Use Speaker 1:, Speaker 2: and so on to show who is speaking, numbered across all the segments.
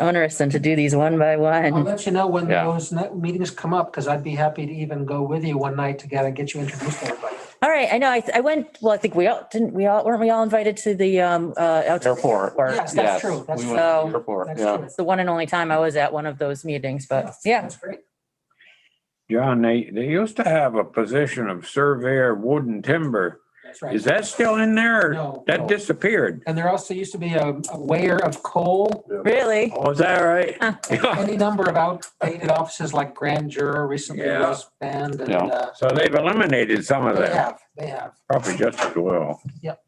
Speaker 1: onerous than to do these one by
Speaker 2: I'll
Speaker 1: one.
Speaker 2: let you know when
Speaker 3: Yeah.
Speaker 2: those ne- meetings come up, because I'd be happy to even go with you one night to get, uh, get you introduced to everybody.
Speaker 1: All right, I know, I, I went, well, I think we all, didn't we all, weren't we all invited to the, um, uh, out to the
Speaker 3: Airport.
Speaker 2: Yes,
Speaker 3: Yes,
Speaker 2: that's true. That's
Speaker 3: we
Speaker 2: true.
Speaker 3: went to
Speaker 1: So-
Speaker 3: the Airport,
Speaker 2: That's
Speaker 3: yeah.
Speaker 2: true.
Speaker 1: It's the one and only time I was at one of those meetings, but yeah,
Speaker 2: That's great.
Speaker 4: John, they, they used to have a position of surveyor of wood and timber.
Speaker 2: That's right.
Speaker 4: Is that still in there? or
Speaker 2: No.
Speaker 4: That disappeared.
Speaker 2: And there also used to be a, a weigher of coal,
Speaker 1: really,
Speaker 4: Oh, is that right?
Speaker 2: any number of outdated offices like Grand Juror recently
Speaker 4: Yeah.
Speaker 2: was banned and,
Speaker 3: Yeah.
Speaker 2: uh,
Speaker 4: So they've eliminated some of
Speaker 2: they
Speaker 4: that,
Speaker 2: have, they have.
Speaker 4: probably just as well.
Speaker 2: All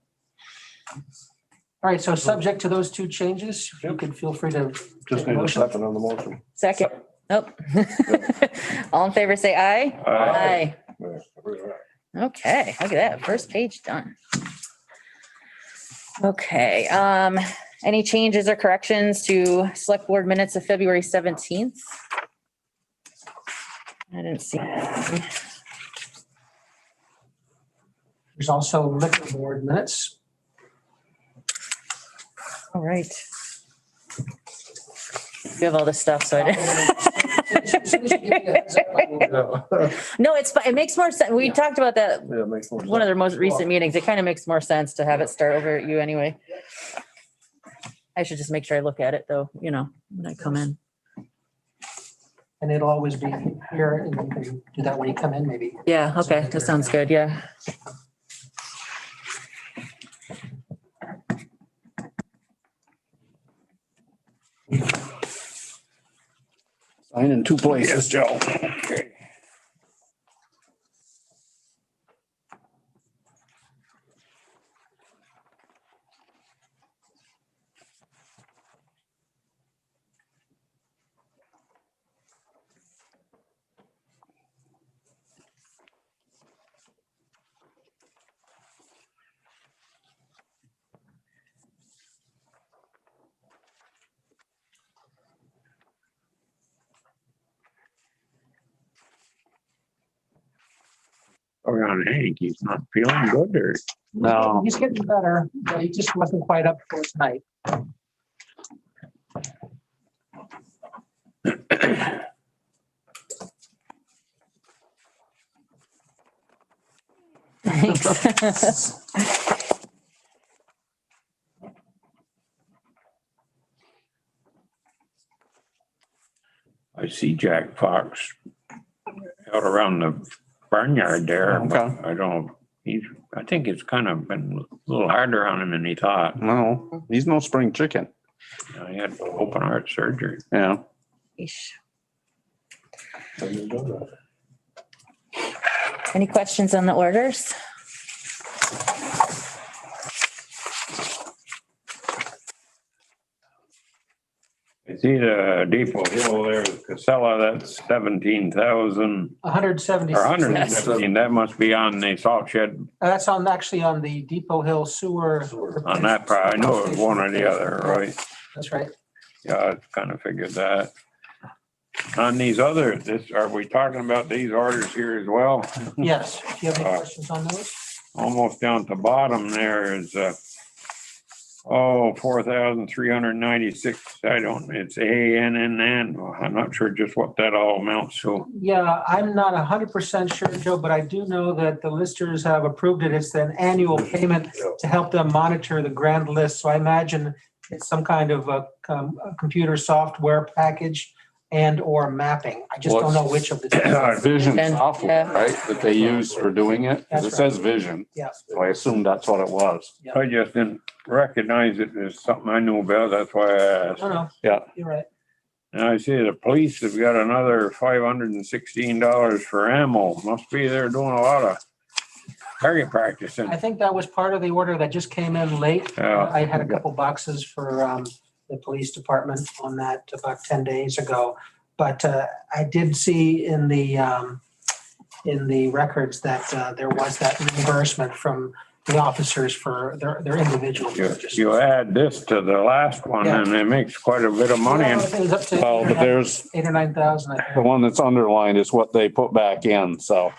Speaker 2: right, so subject to those two changes, you could feel free to.
Speaker 5: Just need a second on the motion.
Speaker 1: second, nope. All in favor, say aye.
Speaker 4: Uh,
Speaker 1: Aye. Okay, look at that, first page done. Okay, um, any changes or corrections to select board minutes of February seventeenth? I didn't see. anything.
Speaker 2: There's also liquor board minutes.
Speaker 1: All right. You have all this stuff, so I didn't. No, it's, fi- it makes more sense. We
Speaker 2: Yeah.
Speaker 1: talked about that,
Speaker 5: Yeah, makes more
Speaker 1: one of
Speaker 5: sense.
Speaker 1: their most recent meetings. It kind of makes more sense to have it start over at you anyway. I should just make sure I look at it though, you know, when I come in.
Speaker 2: And it'll always be here and you can do that when you come in, maybe.
Speaker 1: Yeah, okay, that sounds good, yeah.
Speaker 5: Sign in two places, Joe.
Speaker 4: We're on Oh, Hank, he's not feeling good or?
Speaker 3: No.
Speaker 2: He's getting better, but he just wasn't quite up for tonight.
Speaker 1: Thanks.
Speaker 4: I see Jack Fox out around the barnyard there,
Speaker 3: Okay.
Speaker 4: but I don't, he's, I think it's kind of been a little harder on him than he thought.
Speaker 5: No, he's no spring chicken.
Speaker 4: You know, He had open heart surgery.
Speaker 5: Yeah.
Speaker 1: Yeesh. Any questions on the orders?
Speaker 4: I see the Depot Hill there, Casella, that's seventeen thousand
Speaker 2: hundred seventy.
Speaker 4: or hundred and seventeen. That must be on the salt shed
Speaker 2: That's on, actually on the Depot Hill Sewer.
Speaker 4: on that part. I know it was one or the other, right?
Speaker 2: That's right.
Speaker 4: Yeah, I kind of figured that. On these other, this, are we talking about these orders here as well?
Speaker 2: Yes. Do you have any
Speaker 4: Uh,
Speaker 2: questions on those?
Speaker 4: Almost down to bottom there is, uh, oh, four thousand three hundred ninety-six. I don't, it's A N N N. I'm not sure just what that all amounts to.
Speaker 2: Yeah, I'm not hundred percent sure, Joe, but I do know that the listers have approved it. It's an annual payment to help them monitor the grand list. So I imagine it's some kind of a, com- a computer software package and or mapping. I just don't know which of the.
Speaker 3: Our
Speaker 2: two.
Speaker 3: Vision
Speaker 1: Vision,
Speaker 3: software,
Speaker 1: yeah.
Speaker 3: right, that they use for doing it, 'Cause it
Speaker 2: That's right.
Speaker 3: says vision,
Speaker 2: Yes.
Speaker 3: so I assume that's what it was.
Speaker 4: I just didn't recognize it as something I knew about. That's why I asked.
Speaker 2: Oh, No, no.
Speaker 3: Yeah.
Speaker 2: You're right.
Speaker 4: And I see the police have got another five hundred and sixteen dollars for ammo. Must be they're doing a lot of target practicing.
Speaker 2: I think that was part of the order that just came in late.
Speaker 4: Yeah.
Speaker 2: I had a couple boxes for um, the police department on that about 10 days ago. But uh, I did see in the, um, in the records that uh, there was that reimbursement from the officers for their, their individual
Speaker 4: You,
Speaker 2: purchases.
Speaker 4: you add this to the last one and it makes quite a bit of money.
Speaker 2: Yeah,
Speaker 4: And
Speaker 2: It was up to
Speaker 3: Well, but there's,
Speaker 2: eight or 9,000. I
Speaker 3: the
Speaker 2: think.
Speaker 3: one that's underlined is what they put back in, so.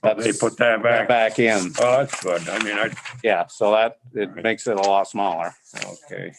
Speaker 3: that's-
Speaker 4: They put that back.
Speaker 3: Back in,
Speaker 4: Oh, that's good. I mean, I,
Speaker 3: yeah, so that, it makes it a lot smaller.
Speaker 4: okay.